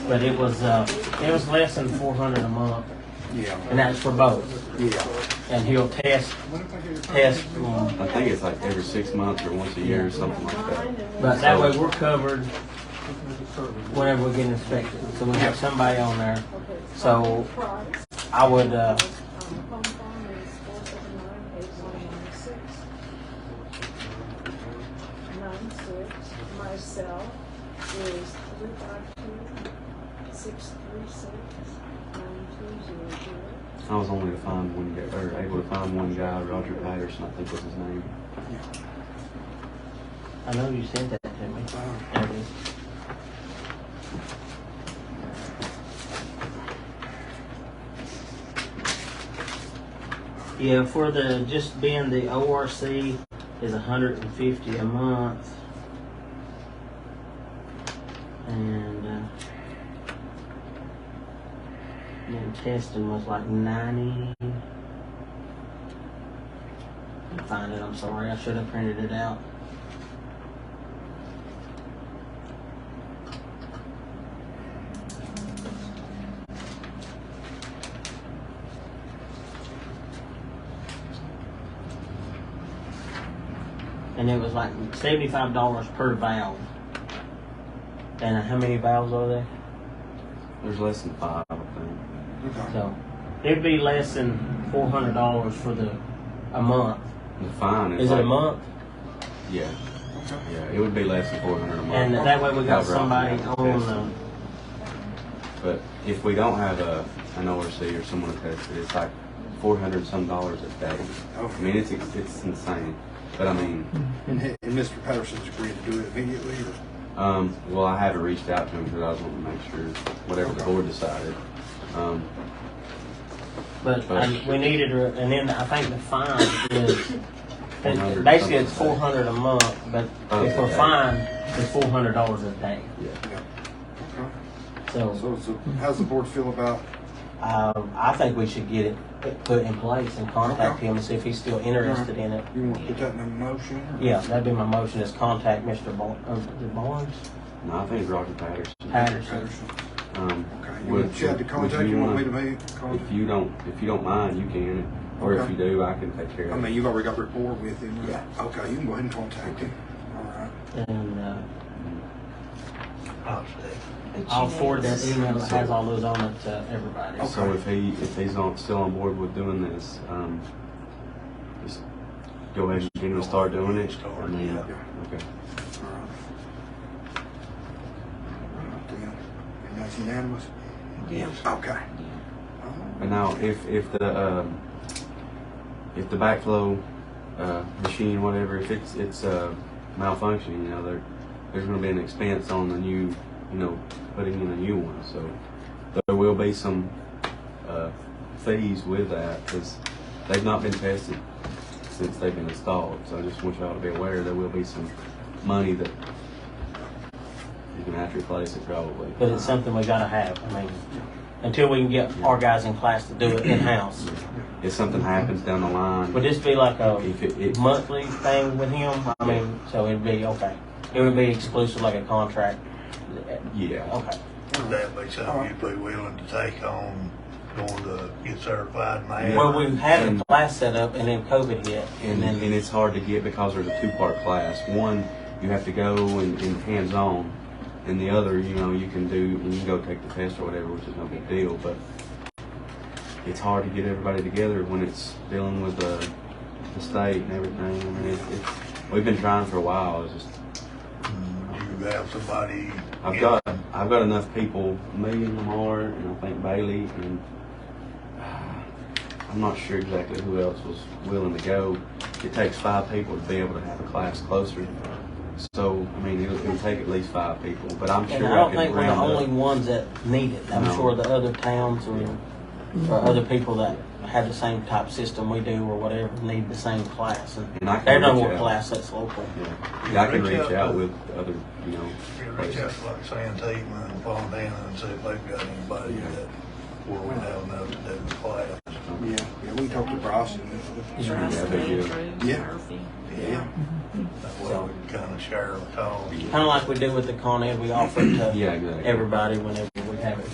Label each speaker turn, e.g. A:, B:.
A: but it was, uh, it was less than four hundred a month,
B: Yeah,
A: and that's for both.
B: yeah.
A: And he'll test, test, um,
C: I think it's like every six months or once a year or something like that.
A: but that way we're covered whenever we get inspected. So we have somebody on there. So I would, uh,
D: Myself is three five two, six three six, nine two zero zero.
C: I was only to find one guy, or able to find one guy, Roger Patterson, I think was his name.
A: I know you said that to me. There it is. Yeah, for the, just being the ORC is a hundred and fifty a month. And, uh, then testing was like ninety. Can't Find it, I'm sorry, I should have printed it out. and it was like seventy-five dollars per valve. And how many valves are there?
C: There's less than five, I think.
B: Okay.
A: So it'd be less than four hundred dollars for the a month.
C: The fine is
A: Is it a
C: like-
A: month?
C: Yeah, yeah, it would be less than four hundred a month.
A: And that way we got
C: Cover up
A: somebody
C: the
A: on
C: test.
A: the.
C: But if we don't have a, an ORC or someone attested, it's like four hundred some dollars a day. I mean, it's, it's it's insane. But I mean,
B: And he- and Mr. Patterson's agreed to do it immediately, or?
C: um, well, I haven't reached out to him because I was wanting to make sure whatever the board decided. Um,
A: But I, we needed her, and then I think the fine is.
C: $100
A: Basically, it's
C: something.
A: four hundred a month, but if we're
C: Okay.
A: fined, it's four hundred dollars a day.
C: yeah,
B: Okay.
A: So
B: So, so how's the board feel about,
A: um, I think we should get it put in place and contact him and see if he's still interested in it.
B: you want to put that in a motion? or-
A: Yeah, that'd be my motion is contact Mr. Bar- uh, is it Barnes
C: no, I think it's Roger Patterson.
A: Patterson.
B: Patterson.
C: Um,
B: Okay, you
C: would-
B: want Chad to
C: would
B: contact, you want me to make
C: If
B: contact?
C: you don't, if you don't mind, you can, or if
B: Okay.
C: you do, I can take care
B: I
C: of
B: mean,
C: it.
B: you've already got rapport with him.
C: Yeah.
B: Okay, you can go ahead and contact him. All right.
A: And uh,
E: But
A: I'll
E: you know,
A: forward that
E: it's-
A: email that has all those on it to everybody.
C: So if he, if he's not still on board with doing this, um, just go ahead and get him to start doing it. and then- Okay.
B: All right. All right, then. And that's unanimous?
E: Yeah.
B: Okay. Oh, All right.
C: And now, if, if the, um, if the backflow, uh, machine, whatever, if it's, it's, uh, malfunctioning, you know, there, there's gonna be an expense on the new, you know, putting in a new one, so there will be some, uh, fees with that, because they've not been tested since they've been installed, so I just want y'all to be aware, there will be some money that you can have to replace it probably.
A: But it's something we gotta have. I mean, until we can get our guys in class to do it in house.
C: If something happens down the line.
A: Would this be like a
C: If it, it,
A: monthly thing with him? I mean, so it'd be okay. It would be exclusive, like a contract.
C: yeah,
A: Okay.
F: Would that be something you'd be willing to take on, going to get certified man?
A: Well, we had a class set up, and then COVID hit,
C: and, and it's hard to get because there's a two-part class. One, you have to go and, and hands-on, and the other, you know, you can do and you can go take the test or whatever, which is no big deal. But it's hard to get everybody together when it's dealing with the, the state and everything. I mean, it's, it's, we've been trying for a while. It's just
F: You have somebody.
C: I've got I've got enough people, me and Lamar, and I think Bailey, and uh, I'm not sure exactly who else was willing to go. It takes five people to be able to have a class closer. So I mean, it'll, it'll take at least five people, but I'm
A: And
C: sure
A: I don't
C: could
A: think we're the
C: round up.
A: only ones that need it. I'm
C: No.
A: sure the other towns or, or other people that have the same type system we do or whatever need the same class. And
C: And I can
A: there's no
C: reach
A: more
C: out.
A: class that's local.
C: Yeah, Yeah, I can
F: Reach
C: reach
F: out.
C: out with other, you know.
F: You Reach
C: places.
F: out to like Santima and Fontana and see if they've got anybody
C: Yeah.
F: that, where we have enough to do the class.
B: Yeah, yeah, we talked to Bryson.
C: Yeah,
E: Trust
C: they
E: me,
C: do.
E: Drew,
B: Yeah.
E: Murphy.
B: Yeah.
F: That way we can kind of share the cost.
A: Kind of like we do with the Con Ed, we offer it to
C: Yeah, exactly.
A: everybody whenever we have it